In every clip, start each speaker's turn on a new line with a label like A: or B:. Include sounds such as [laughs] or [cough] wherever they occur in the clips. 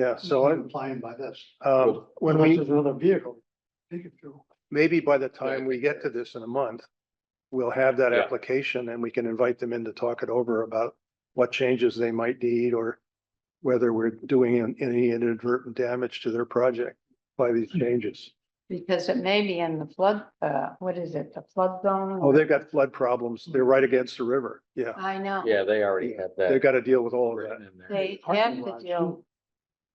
A: Yeah, so I,
B: Implying by this.
A: um, when
B: Unless
A: we,
B: there's Another vehicle. Take it through.
A: maybe by the time we get to this in a month, we'll have that
C: Yeah.
A: application and we can invite them in to talk it over about what changes they might need or whether we're doing an- any inadvertent damage to their project by these
C: Mm-hmm.
A: changes.
D: Because it may be in the flood, uh, what is it, the flood zone?
A: Oh, they've got flood problems. They're right against the river. Yeah,
D: I know,
C: Yeah, they already have that.
A: they've got to deal with all of
C: written
A: that.
C: in there.
D: they have
B: Parking
D: the
B: garage,
D: deal,
B: too.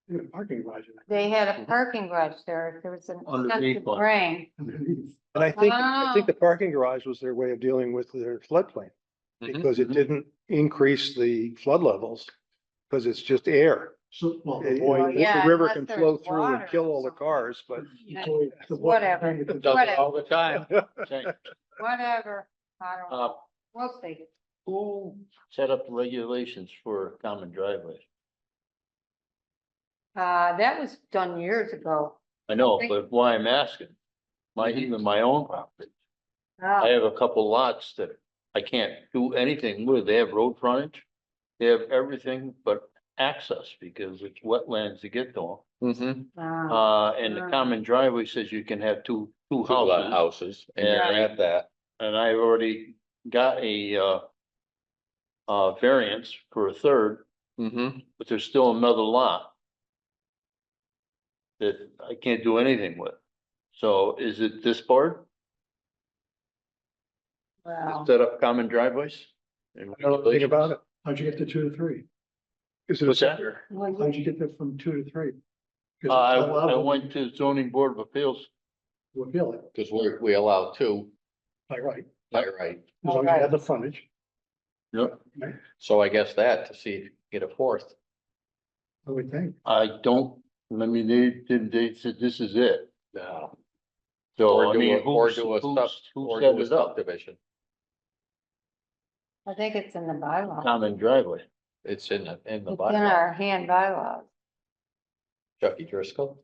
B: They had a Parking garage. in it.
D: they had
E: Mm.
D: a parking garage there, there was an
C: Underneath
D: excessive
C: one.
D: rain.
B: Underneath.
A: And I think, I think
D: Ah.
A: the parking garage was their way of dealing with their floodplain
C: Mhm.
A: because it didn't increase the flood levels because it's just air.
B: So, well, the
A: It-
B: boy.
D: Well,
A: it-
D: yeah,
A: The river
D: unless
A: can
D: there's
A: flow through
D: water
A: and kill
D: or
A: all the
D: something.
A: cars, but
B: the boy- the boy-
D: Whatever.
C: It Mm-hmm. Does it all the
A: [laughs]
C: time.
D: Whatever, I don't,
C: Uh,
D: we'll see.
C: who set up the regulations for common driveways?
D: Uh, that was done years ago.
C: I know,
D: Thank-
C: but why I'm asking, my, even my own property, I
D: Uh,
C: have a couple lots that I can't do anything with, they have road frontage. They have everything but access because it's wetlands to get to them.
D: uh,
C: Uh, and the
D: Ah.
C: common driveway says you can have two, two
E: Two lot
C: houses,
E: houses, and you're
C: Yeah.
E: at that,
C: and I've already got a, uh. Uh, variance for a third,
E: mm-hmm,
C: but there's still another lot. That I can't do anything with. So is it this board
D: well,
C: that set up common driveways?
A: I don't know anything about it.
B: How'd you get to two to three?
A: Is it a
C: What's that?
D: well, you-
B: How'd you get there from two to three? 'Cause
C: Uh, I,
B: it's allowed
C: I went to zoning board of appeals.
B: to Appeal it,
E: because we're, we allow two
B: by right, as
E: by right,
B: long as you have the frontage.
C: Yep.
E: so I guess that to see if you get a fourth.
B: I would think.
C: I don't, I mean, they, didn't, they said this is it.
E: No.
C: So
E: Or
C: I
E: do a,
C: mean,
E: or
C: who's,
E: do a sub,
C: who's, who
E: or
C: set
E: do a
C: it up?
E: subdivision,
D: I think it's in the bylaw,
C: Common driveway.
E: it's in the, in
D: it's
E: the
D: in
E: bylaw,
D: our hand bylaws.
E: Chucky Driscoll.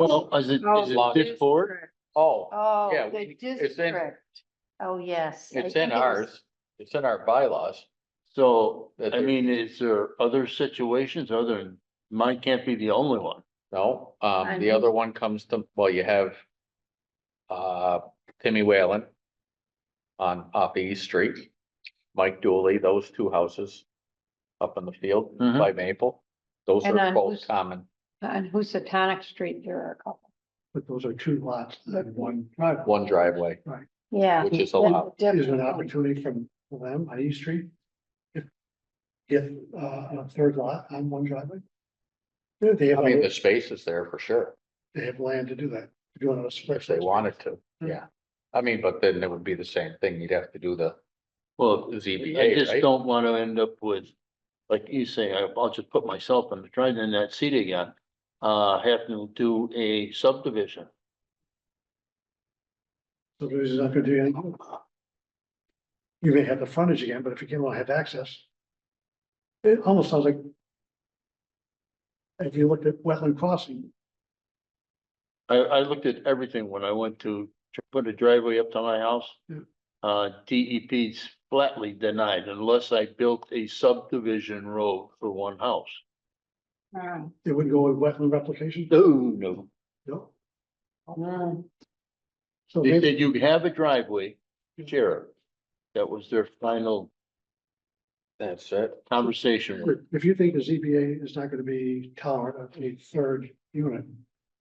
C: Well, is it,
D: Oh,
C: is
E: lot-
C: it this board?
D: district.
E: Oh, Yeah,
D: Oh,
E: we-
D: the
E: it's in-
D: district. Oh, yes. I
E: it's
D: think
E: in
D: it was-
E: ours, it's in our bylaws,
C: So,
E: That
C: I
E: there-
C: mean, is there other situations other than, mine can't be the only one.
E: no,
D: I
E: um, the
D: know.
E: other one comes to, well, you have. Uh, Timmy Whalen. On, off East Street, Mike Dooley, those two houses. Up in the field
C: Mhm.
E: by Maple, those
D: And
E: are
D: on
E: both
D: whose-
E: common.
D: On Housatonic Street, there are a couple.
B: But those are two lots and one driveway.
E: one driveway,
D: Yeah.
E: which is
D: that's
E: allowed.
B: Is there an
D: different.
B: opportunity from for them on East Street? If, if, uh, a third lot on one driveway? Yeah, They have,
E: I mean,
B: other-
E: the space is there for sure,
B: they have land to do that, to do another split.
E: if they wanted to, yeah. I mean, but then it would be the same thing, you'd have to do the
C: Well, I
E: ZBA,
C: just
E: right?
C: don't want to end up with, like you say, I- I'll just put myself in the trying in that seat again. Uh, have to do a subdivision.
B: So there's not gonna do anything. You may have the frontage again, but if you can't really have access. It almost sounds like. If you looked at wetland crossing,
C: I, I looked at everything when I went to tr- put a driveway up to my house.
B: Yeah.
C: Uh, DEP's flatly denied unless I built a subdivision road for one house.
D: Um,
B: it would go with wetland replication,
C: No, no.
B: no?
D: mm,
B: So
C: They
B: maybe
C: said you have a driveway, Jared. That was their final
E: That's it.
C: conversation. with-
B: if you think the ZBA is not gonna be tolerant of a third unit.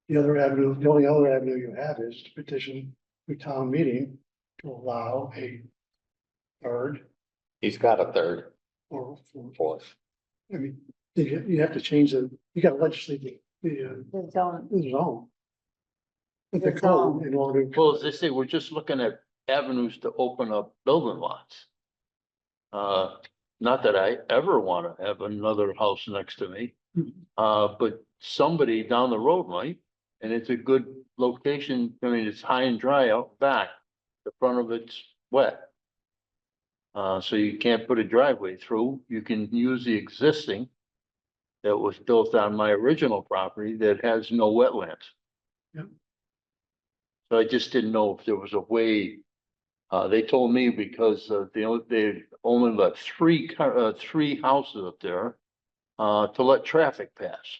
B: The other avenue, the only other avenue you have is to petition the town meeting to allow a. Third
E: He's got a third,
B: or fourth,
E: fourth.
B: I mean, you, you have to change the, you gotta legislate the, the, uh,
D: The zone,
B: This is all. But the
D: It's
B: code
D: all-
B: in order.
C: Well, as they say, we're just looking at avenues to open up building lots. Uh, not that I ever want to have another house next to me,
B: Mhm.
C: uh, but somebody down the road might. And it's a good location. I mean, it's high and dry out back. The front of it's wet. Uh, so you can't put a driveway through. You can use the existing that was built on my original property that has no wetlands. So I just didn't know if there was a way. Uh, they told me because uh, they, only- they only let three, car- uh, three houses up there, uh, to let traffic pass.